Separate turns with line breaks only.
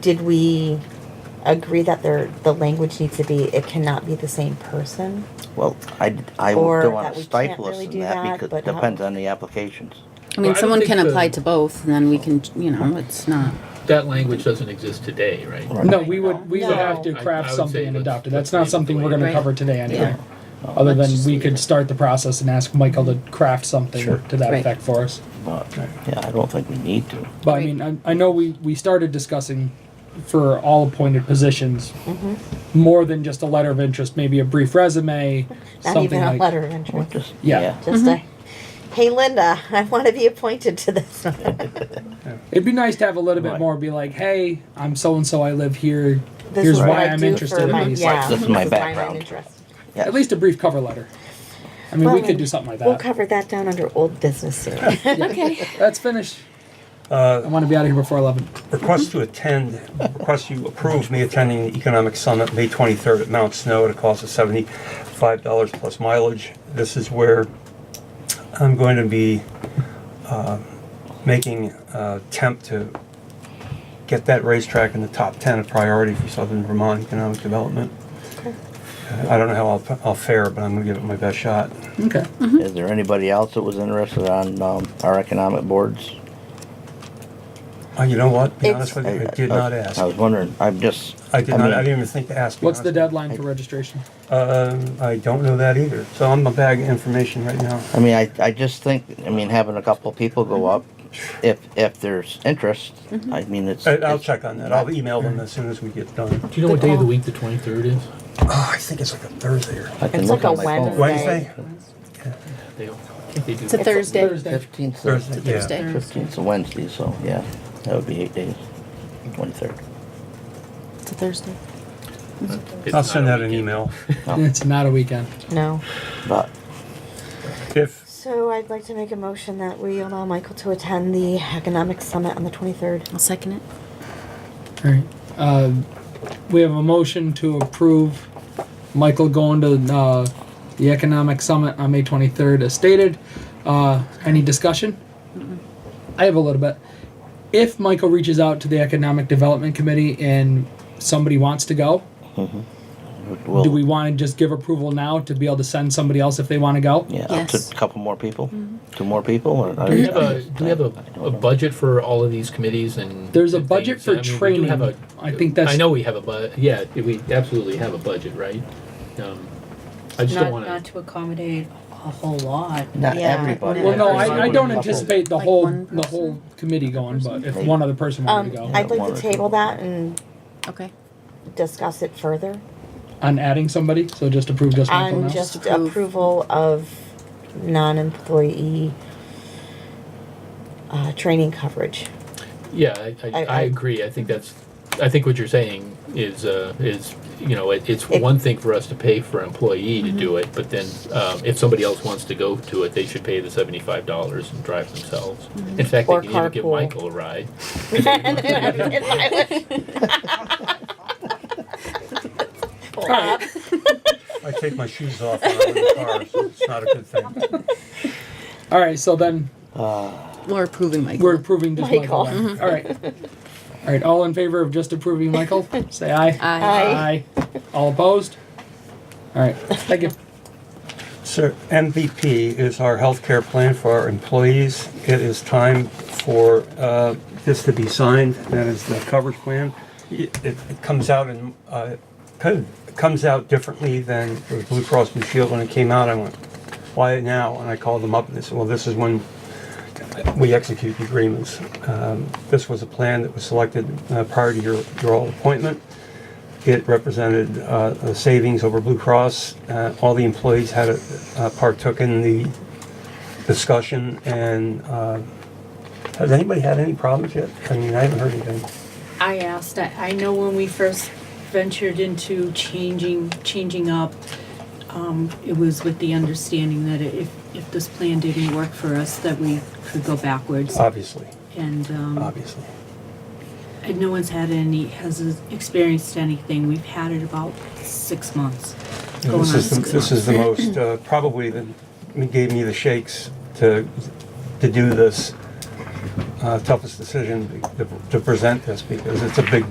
did we agree that there, the language needs to be, it cannot be the same person?
Well, I, I
Or that
don't want
we
to
can't
stifle us
really
in
do that,
that because
but
it
how-
depends on the applications.
I mean,
Well, I don't
someone can
think
apply
the-
to both, and then we can, you know, it's not.
That language doesn't exist today, right?
No,
No, we would, we would have to
No. I- I
craft
would
something
say
and
let's-
adopt it.
let's
That's
leave
not
it
something
the
we're
way it
gonna
is.
cover today anyway.
Yeah.
Other
Let's
than
just
we
leave
could
it.
start the process and ask Michael to craft
Sure.
something to that
Right.
effect for us.
But, yeah, I don't think we need to.
But I
Right.
mean, I, I know we, we started discussing for all appointed positions,
Mm-hmm.
more than just a letter of interest, maybe a brief resume,
Not even
something
a
like.
letter of
We're
interest,
just,
Yeah.
yeah.
just a, hey Linda, I want to be appointed to this.
It'd be nice to have a little bit
Right.
more, be like, hey, I'm so-and-so, I live here,
This
here's
is what
why
I
I'm
do for
interested
my-
in these.
yeah,
This is my
why I'm
background.
interested.
yeah.
At least a brief cover letter. I mean, we
Well,
could do something like
We'll
that.
cover that down under old business soon.
Okay.
Let's finish. I want to be out of here before eleven.
Request to attend, request you approve me attending the Economic Summit, May 23rd at Mount Snow at a cost of $75 plus mileage. This is where I'm going to be uh, making uh, attempt to get that racetrack in the top 10 of priority for Southern Vermont economic development. Uh, I don't know how I'll I'll fare, but I'm going to give it my best shot.
Okay.
Is there anybody else that was interested on, um, our economic boards?
Uh, You know what? Be
It's-
honest with you, I did not ask.
I was wondering, I'm just.
I did
uh, mean,
not, I didn't even think to ask. to be
What's the
honest with you.
deadline for registration?
Um, I don't know that either. So I'm a bag of information right now.
I mean, I, I just think, I mean, having a couple people go up, if, if there's interest,
Mm-hmm.
I mean, it's.
I- I'll
it's-
check on that. I'll e- email them as soon as we get done.
Do you know what day of the week the 23rd is?
Oh, I think it's like a Thursday or
I can
It's
look
like a
on my phone.
Wednesday.
Wednesday?
They, I think they do.
It's a Thursday.
Thursday.
Fifteenth,
Thursday, yeah.
Thursday.
fifteenth, a Wednesday, so, yeah, that would be eight days, twenty-third.
It's a Thursday.
It's
I'll
not
send
a
out an
weekend.
email.
It's not a weekend.
No.
But,
If,
So I'd like to make a motion that we allow Michael to attend the economic summit on the twenty-third.
I'll second it.
All right. Uh, we have a motion to approve Michael going to uh, the economic summit on May 23rd, as stated. Uh, any discussion? I have a little bit. If Michael reaches out to the economic development committee and somebody wants to go,
we'll.
do we want to just give approval now to be able to send somebody else if they want to go?
Yeah, up
Yes.
to a couple more people,
Mm-hmm.
two more people, or?
Do we have a, do we have a, a budget for all of these committees and?
There's a
and
budget
things?
for
I mean, we do have
training.
a-
I think that's-
I know we have a bu, yeah, we absolutely have a budget, right? Um, I just don't
Not, not
wanna,
to accommodate a whole lot.
Not
Yeah.
everybody.
Well, no,
Everybody
I, I
would
don't
be coupled.
anticipate the
Like
whole,
one
the whole committee going, but if
Maybe.
one other person wanted
Um,
to go.
I'd like
One or
to
two.
table that and
Okay.
discuss it further
on adding somebody, so just approve just Michael
on
now.
just
Approve.
approval of non-employee uh, training coverage.
yeah, I, I,
I- I-
I agree, I think that's, I think what you're saying is, uh, is, you know, it, it's
It- Mm-hmm.
one thing for us to pay for an employee to do it, but then, um, if somebody else wants to go to it, they should pay the seventy-five dollars and drive themselves. In fact,
Mm-hmm.
they
Or
could even give
carpool.
Michael a ride.
Bob,
I take my shoes off when I'm in the car, so it's not a good thing.
All right, so then
We're approving Michael.
we're approving just
Michael.
Michael. then. All right. All right, all in favor of just approving Michael, say aye.
Aye.
Aye. All opposed? All right, thank you.
Sir, MVP is our healthcare plan for our employees. It is time for uh, this to be signed. That is the coverage plan. It, it it comes out and uh, kind of comes out differently than the Blue Cross Blue Shield when it came out. I went, why now? And I called them up and they said, well, this is when we execute the agreements. Um, this was a plan that was selected uh, prior to your your all appointment. It represented uh, a savings over Blue Cross. Uh, All the employees had, a- uh, partook in the discussion, and uh, has anybody had any problems yet? I mean, I haven't heard anything.
I asked, I, I know when we first ventured into changing, changing up, um, it was with the understanding that if, if this plan didn't work for us, that we could go backwards.
Obviously,
And, um,
obviously.
and no one's had any, has experienced anything. We've had it about six months. going
This
on
is, the-
six
this is the most, uh, probably, the- it gave me the shakes to, to do this uh, toughest decision, to to present this, because it's a big